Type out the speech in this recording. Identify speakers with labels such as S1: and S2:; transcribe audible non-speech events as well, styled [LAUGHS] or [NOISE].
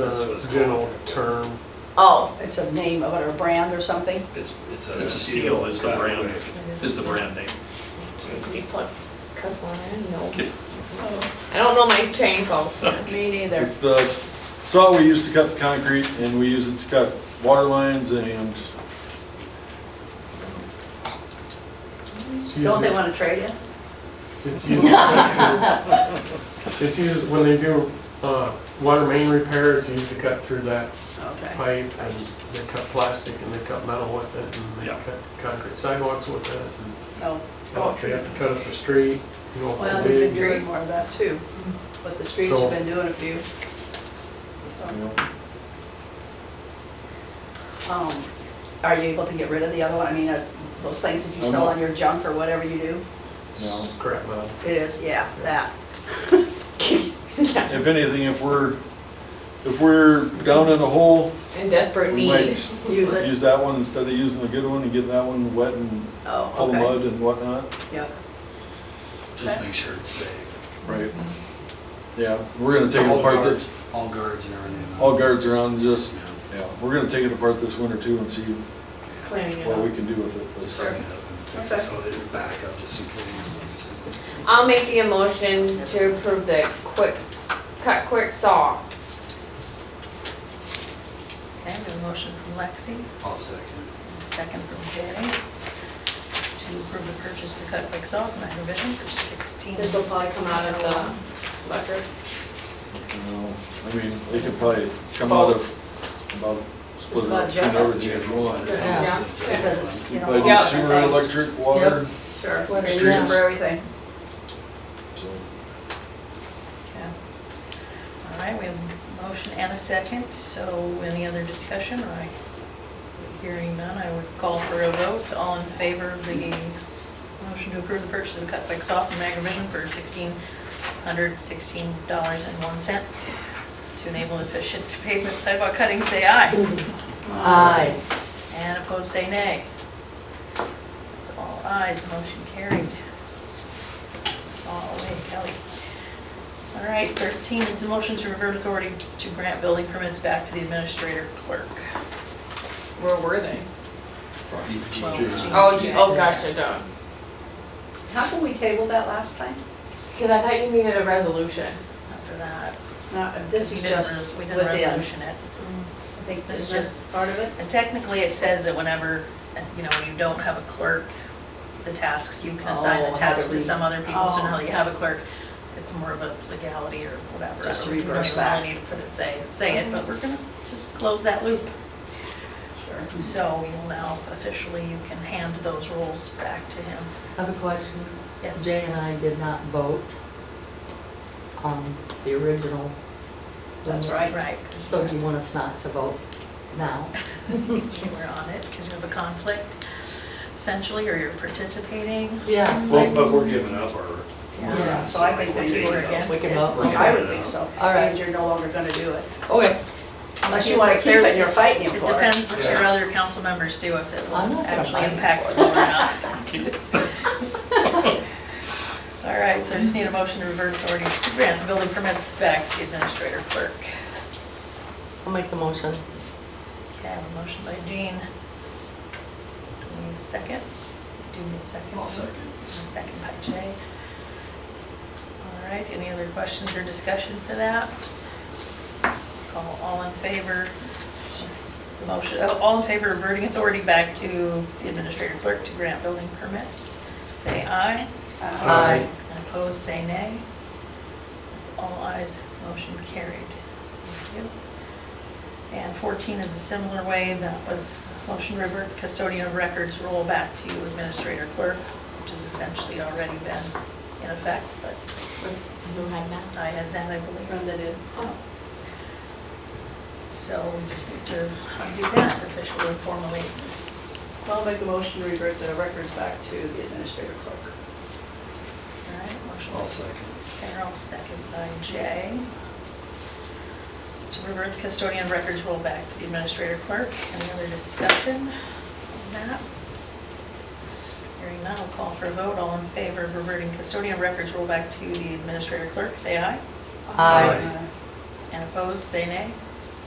S1: That's what
S2: the
S1: it's
S2: general
S1: called.
S2: term.
S3: Oh,
S4: It's a name of it or a brand or something?
S1: It's, it's a.
S5: It's a steel, is the
S1: Yeah.
S5: brand, is the brand name.
S3: you put couple in, no.
S5: Okay.
S3: I don't know my chainsaws,
S2: [LAUGHS]
S3: man.
S4: Me neither.
S6: It's the saw we use to cut the concrete and we use it to cut water lines and
S2: It's
S4: Don't they
S2: used-
S4: want to trade in?
S2: It's used, it's used, when they do, uh, water main repair, it's used to cut through that
S4: Okay.
S2: pipe and they cut plastic and they cut metal with it and they
S5: Yeah.
S2: cut concrete sidewalks with it. and
S4: No.
S2: They Oh, have to cut up the street, you know,
S4: Oh. Well,
S2: for
S4: we've
S2: big.
S4: been doing more of that too, but the streets
S2: So-
S4: have been doing a few.
S6: you know,
S4: So, um, Are you able to get rid of the other one? I mean, uh, those things that you sell on your junk or whatever you do?
S6: no.
S2: Crap metal.
S4: It is, yeah, that.
S6: If anything, if we're, if we're down in a hole,
S3: in desperate
S6: we
S3: need.
S6: might
S4: Use it.
S6: use that one instead of using the good one and getting that one wet and
S4: Oh,
S6: full of
S4: okay.
S6: mud and whatnot.
S4: Yep.
S5: Just make sure it's safe.
S6: Right. Yeah, we're gonna take it
S7: All
S6: apart,
S7: guards,
S6: this-
S7: all guards and everything.
S6: all guards around, just,
S7: Yeah.
S6: yeah, we're gonna take it apart this winter too and see
S3: Clearing it
S6: what we
S3: up.
S6: can do with it. but-
S7: Bring it up and fix it so that it back up just in case.
S3: I'll make the motion to approve the quick, cut quick saw.
S8: Okay, we have a motion from Lexi,
S7: I'll second.
S8: a second from Jerry, to approve the purchase of the cut quick saw from Agrivision for sixteen.
S3: This will probably come out of the record.
S6: you know, I mean, they could probably come out of, about, split it
S4: about
S6: up between
S4: general.
S6: everything if you want.
S3: Yeah.
S4: Because it's, you know.
S6: Probably
S3: Yeah.
S6: do sewer, electric, water,
S4: Sure,
S3: Whether
S4: Streets
S6: you have-
S4: for everything.
S6: so.
S8: Okay. All right, we have a motion and a second, so any other discussion? I, hearing none, I would call for a vote. All in favor of the motion to approve the purchase of the cut quick saw from Agrivision for sixteen hundred sixteen dollars and one cent to enable efficient pavement sidewalk cutting, say aye.
S3: Aye.
S8: And opposed, say nay. That's all ayes, motion carried. It's all away, Kelly. All right, 13 is the motion to revert authority to grant building permits back to the administrator clerk.
S3: Where were they?
S8: Well,
S7: G-
S8: G-
S3: Oh, gee- oh, gotcha, done.
S4: How come we tabled that last time?
S3: Cause I thought you needed a resolution.
S8: After that,
S4: Not, this
S8: we
S4: is
S8: didn't
S4: just
S8: res- we
S4: within.
S8: didn't resolution it.
S4: I think this
S8: This is
S4: is just part of it.
S8: And technically, it says that whenever, you know, when you don't have a clerk, the tasks, you can assign
S4: Oh, I
S8: the
S4: had to
S8: tasks to
S4: read.
S8: some other people, so now
S4: Oh.
S8: you have a clerk. It's more of a legality or whatever.
S4: Just
S8: I don't- we don't
S4: reverse
S8: even
S4: back.
S8: really need to put it, say, say it, but we're gonna just close that loop.
S4: Mm-hmm. Sure.
S8: So we will now officially, you can hand those roles back to him.
S9: I have a question.
S8: Yes.
S9: Jay and I did not vote on the original.
S4: That's right.
S8: Right.
S9: So do you want us not to vote now?
S8: You were on it because you have a conflict essentially, or you're participating.
S9: Yeah.
S7: Well, but we're giving up our.
S4: Yeah, so I think we
S8: You were
S4: were
S8: against
S9: We can
S8: it.
S9: vote.
S4: I would think so.
S9: All right.
S4: And you're no longer gonna do it.
S9: Okay,
S4: Unless
S8: See
S4: you
S8: if
S4: wanna
S8: it
S4: keep it
S8: cares-
S4: and you're fighting him
S8: It
S4: for it.
S8: depends what your other council members do, if it
S9: I'm
S8: will
S9: not gonna
S8: actually
S9: fight him
S8: impact them or not.
S9: [LAUGHS]
S8: All right, so I just need a motion to revert authority to grant the building permits back to the administrator clerk.
S9: I'll make the motion.
S8: Okay, I have a motion by Jean. Do we need a second? Do you need a 2nd
S7: I'll second.
S8: And a second by Jay. All right, any other questions or discussion for that? All, all in favor? of Motion, oh, all in favor of reverting authority back to the administrator clerk to grant building permits? Say aye.
S4: Uh,
S8: Uh,
S9: Aye.
S8: And opposed, say nay. That's all ayes, motion carried. Thank you. And 14 is a similar way, that was motion to revert custodian of records roll back to administrator clerk, which has essentially already been in effect, but
S9: Who had that?
S8: I had that, I believe. Oh.
S4: Brenda did.
S8: So we just need to do that officially and formally.
S4: Well, make a motion to revert the records back to the administrator clerk.
S8: All right, motion.
S7: I'll second.
S8: Carol, second by Jay. To revert the custodian records roll back to the administrator clerk. Any other discussion on that? Hearing none, I'll call for a vote. All in favor of reverting custodian records roll back to the administrator clerk, say aye.
S9: Aye.
S8: And opposed, say nay.